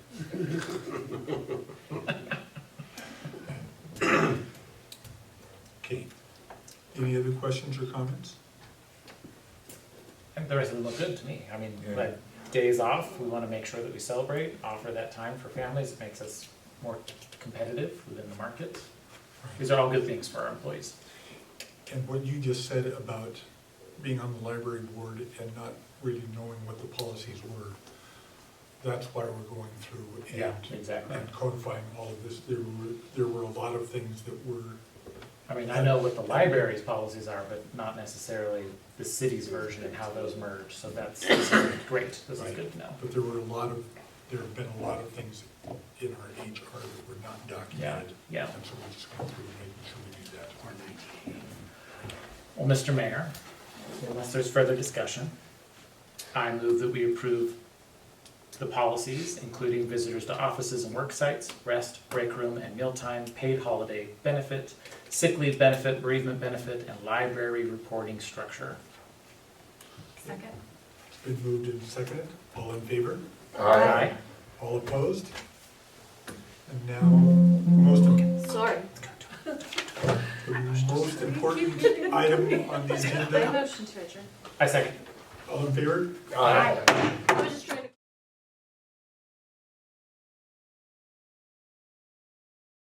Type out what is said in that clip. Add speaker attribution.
Speaker 1: Okay. Any other questions or comments?
Speaker 2: And the rest of it looked good to me. I mean,
Speaker 1: Yeah.
Speaker 2: like days off, we want to make sure that we celebrate, offer that time for families. It makes us more competitive within the market. These are all good things for our employees.
Speaker 1: And what you just said about being on the library board and not really knowing what the policies were, that's why we're going through and,
Speaker 2: Exactly.
Speaker 1: and codifying all of this. There were, there were a lot of things that were,
Speaker 2: I mean, I know what the library's policies are, but not necessarily the city's version and how those merge. So that's this is great. This is
Speaker 1: Right.
Speaker 2: good to know.
Speaker 1: but there were a lot of, there have been a lot of things in our HR that were not documented.
Speaker 2: Yeah.
Speaker 1: And so we're just going through and making sure we do that.
Speaker 2: Well, Mr. Mayor, unless there's further discussion, I move that we approve the policies, including visitors to offices and work sites, rest, break room, and mealtime, paid holiday benefit, sick leave benefit, bereavement benefit, and library reporting structure.
Speaker 3: Second?
Speaker 1: It's been moved and seconded. All in favor?
Speaker 2: Aye.
Speaker 1: All opposed? And now, most, im-
Speaker 3: Sorry.
Speaker 1: the most important item on the
Speaker 3: I
Speaker 1: agenda,
Speaker 3: motion to adjourn.
Speaker 2: I second.
Speaker 1: all in favor?
Speaker 3: Aye. I was just